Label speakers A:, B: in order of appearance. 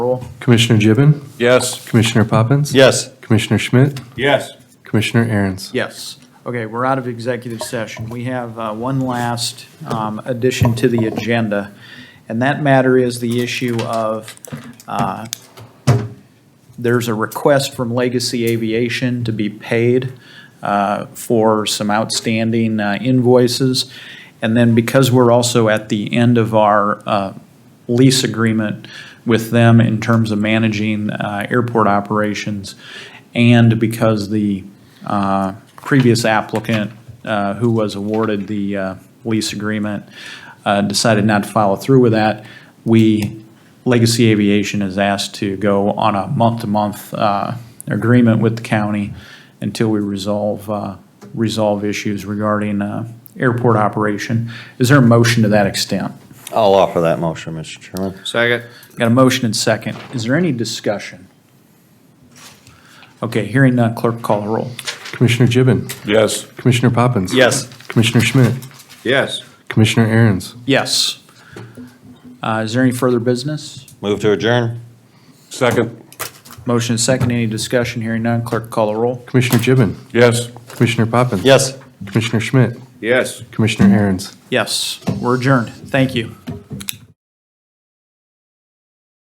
A: Commissioner Gibbon,
B: Yes.
A: Commissioner Poppins.
B: Yes.
A: Commissioner Schmidt,
B: Yes.
A: Commissioner Aaron's.
C: Yes. Okay, we're out of executive session. We have uh, one last um, addition to the agenda, and that matter is the issue of, uh, there's a request from Legacy Aviation to be paid uh, for some outstanding uh, invoices. And then because we're also at the end of our uh, lease agreement with them in terms of managing uh, airport operations, and because the uh, previous applicant uh, who was awarded the uh, lease agreement uh, decided not to follow through with that, we, Legacy Aviation is asked to go on a month-to-month uh, agreement with the county until we resolve, uh, resolve issues regarding uh, airport operation. Is there a motion to that extent?
D: I'll offer that motion, Mr. Chairman.
B: Second.
C: Got a motion and second. Is there any discussion? Okay, hearing none, clerk call the roll.
A: Commissioner Gibbon,
B: Yes.
A: Commissioner Poppins.
D: Yes.
A: Commissioner Schmidt,
B: Yes.
A: Commissioner Aaron's.
C: Yes. Uh, Is there any further business?
D: Move to adjourn?
B: Second.
C: Motion is second, any discussion, hearing none, clerk call the roll.
A: Commissioner Gibbon,
B: Yes.
A: Commissioner Poppins.
D: Yes.
A: Commissioner Schmidt,
B: Yes.
A: Commissioner Aaron's.
C: Yes, we're adjourned, thank you.